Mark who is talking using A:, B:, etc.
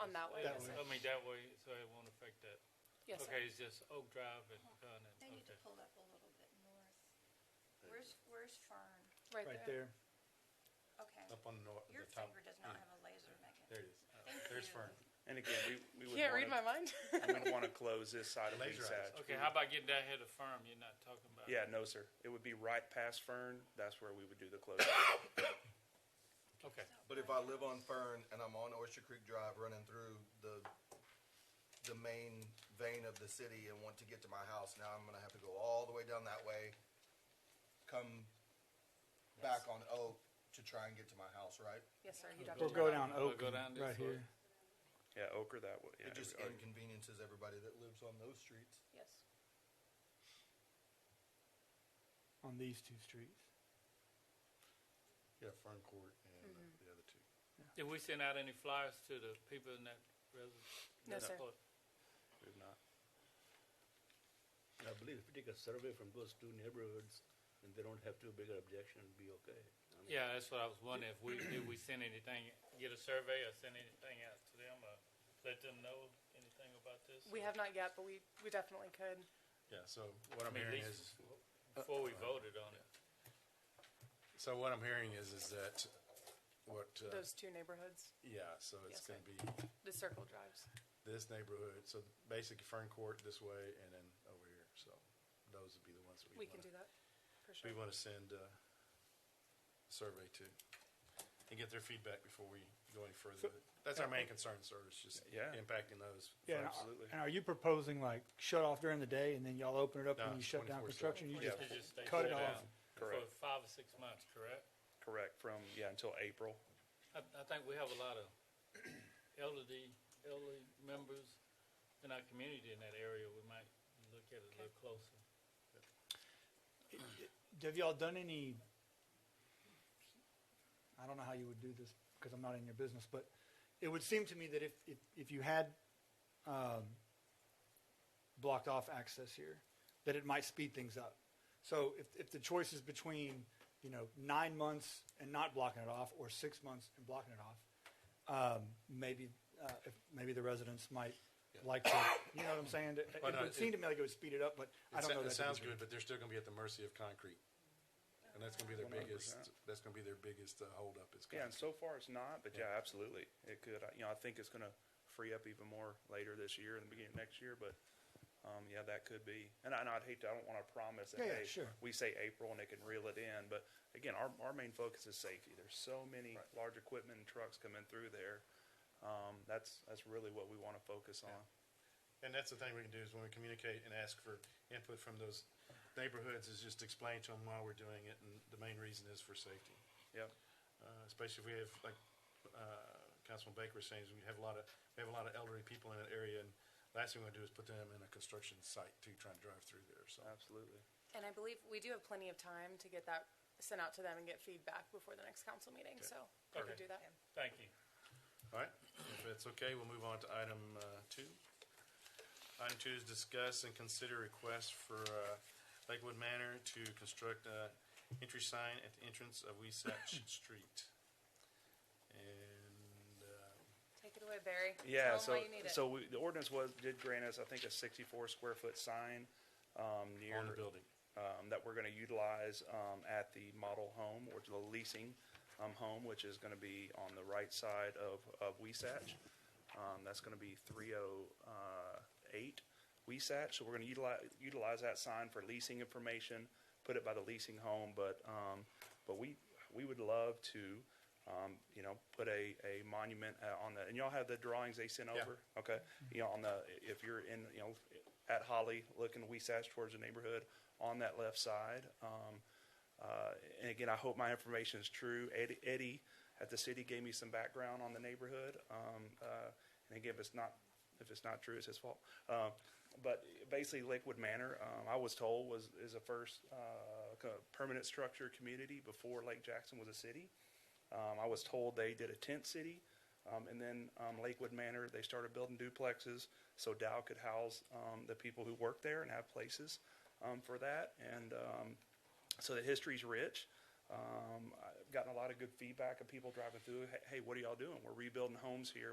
A: On that way,
B: That
A: yes, sir.
B: way.
C: I mean, that way, so it won't affect that.
A: Yes, sir.
C: Okay, it's just Oak Drive and Vernon,
D: They need to
C: okay.
D: pull up a little bit north. Where's, where's Fern?
A: Right
B: right
A: there.
B: there.
D: Okay.
E: Up on the nor- the
D: Your
E: top.
D: finger does not have a laser,
E: There
D: Megan.
E: it is.
D: Thank
E: There's
D: you.
E: Fern.
F: And again, we, we would
A: Can't read my mind.
F: want to, we would want to close this side of
E: Laser
F: Lee's
E: eyes.
F: Hatch.
C: Okay, how about getting that head of firm, you're not talking about?
F: Yeah, no, sir. It would be right past Fern. That's where we would do the closing.
C: Okay,
G: But if I live on Fern and I'm on Oyster Creek Drive running through the, the main vein of the city and want to get to my house, now I'm gonna have to go all the way down that way, come back on Oak to try and get to my house, right?
A: Yes, sir. You'd have to
B: We'll
A: turn
B: go
A: around.
B: down
C: We'll
B: Oak,
C: go down this
B: right
C: way.
B: here.
F: Yeah, Oker that way. Yeah,
G: It just
F: every- oh,
G: inconveniences everybody that lives on those streets.
A: Yes.
B: on these two streets.
E: Yeah, Fern Court and uh, the other two.
C: did we send out any flyers to the people in that residence?
A: No, sir.
F: we've not.
H: I believe if you take a survey from those two neighborhoods, and they don't have too big an objection, it'll be okay. I mean,
C: Yeah, that's what I was wondering, if we, did we send anything, get a survey or send anything out to them, or let them know anything about this?
A: We have not yet, but we, we definitely could.
E: Yeah, so
C: I
E: what I'm
C: mean, at
E: hearing
C: least
E: is,
C: Before we voted on it.
E: so what I'm hearing is, is that what, uh,
A: Those two neighborhoods,
E: yeah, so it's
A: Yes,
E: gonna
A: sir.
E: be
A: the circle drives.
E: this neighborhood, so basically Fern Court this way and then over here, so those would be the ones that we
A: We
E: wanna.
A: can do that, for
E: We
A: sure.
E: wanna send uh, a survey to and get their feedback before we go any further. with it. That's our main concern, sir, is just
F: Yeah.
E: impacting those.
B: Yeah, and-
F: Absolutely.
B: And are you proposing like shut off during the day and then y'all open it up
E: No,
B: when you shut
E: 24/7.
B: down construction? You
C: It
B: just
C: should just stay
B: cut it
C: shut
B: off.
C: down For
F: Correct.
C: five or six months, correct?
F: Correct. From yeah until April.
C: I, I think we have a lot of elderly, elderly members in our community in that area. We might look at it a little closer.
B: Have y'all done any, I don't know how you would do this because I'm not in your business, but it would seem to me that if, if, if you had um, blocked off access here, that it might speed things up. So if, if the choice is between, you know, nine months and not blocking it off or six months and blocking it off, um, maybe, uh, if, maybe the residents might like to, you know what I'm saying? It, it
E: Why not?
B: would seem to me like it would speed it up, but I
E: It sa-
B: don't know.
E: It
B: that to be
E: sounds
B: true.
E: good, but they're still gonna be at the mercy of concrete. And that's gonna be their
F: 100%.
E: biggest, that's gonna be their biggest uh, holdup is
F: Yeah, and
E: concrete.
F: so far it's not, but yeah, absolutely. It could. I- You know, I think it's going to free up even more later this year and the beginning of next year, but. Um, yeah, that could be, and, I, and I'd hate to. I don't want to promise that
B: Yeah, yeah,
F: hey,
B: sure.
F: we say April and it can reel it in. But again, our, our main focus is safety. There's so many
E: Right.
F: large equipment and trucks coming through there. Um, that's that's really what we want to focus on.
E: And that's the thing we can do is when we communicate and ask for input from those neighborhoods is just explain to them why we're doing it and the main reason is for safety.
F: Yep.
E: Uh, especially if we have, like, uh, Councilman Baker was saying, is we have a lot of, we have a lot of elderly people in that area and last thing we want to do is put them in a construction site too, trying to drive through there, so.
F: Absolutely.
A: And I believe we do have plenty of time to get that sent out to them and get feedback before the next council meeting, so we could
C: Okay.
A: do that.
C: Thank you.
E: All right, if it's okay, we'll move on to item uh, two. Item two is discuss and consider request for uh, Lakewood Manor to construct a entry sign at the entrance of Weisach Street. And uh,
A: Take it away, Barry.
F: Yeah,
A: Tell 'em why
F: so,
A: you need it.
F: so we, the ordinance was, did grant us, I think, a sixty-four square foot sign, um, near.
E: on the building.
F: Um, that we're gonna utilize, um, at the model home or the leasing, um, home, which is gonna be on the right side of, of Weisach. Um, that's gonna be three oh, uh, eight Weisach, so we're gonna utilize, utilize that sign for leasing information, put it by the leasing home, but, um, but we, we would love to, um, you know, put a, a monument uh, on the, and y'all have the drawings they sent
E: Yeah.
F: over? Okay, you know, on the, if you're in, you know, at Holly, looking Weisach towards the neighborhood, on that left side, um, uh, and again, I hope my information is true. Eddie, Eddie at the city gave me some background on the neighborhood. Um, uh, and again, if it's not, if it's not true, it's his fault. Um, but basically, Lakewood Manor, um, I was told, was is a first uh, kind of permanent structure community before Lake Jackson was a city. Um, I was told they did a tent city, um, and then um, Lakewood Manor. They started building duplexes so Dow could house um, the people who work there and have places um, for that. And um, so the history's rich. Um, I've gotten a lot of good feedback of people driving through. Hey, hey, what are y'all doing? We're rebuilding homes here.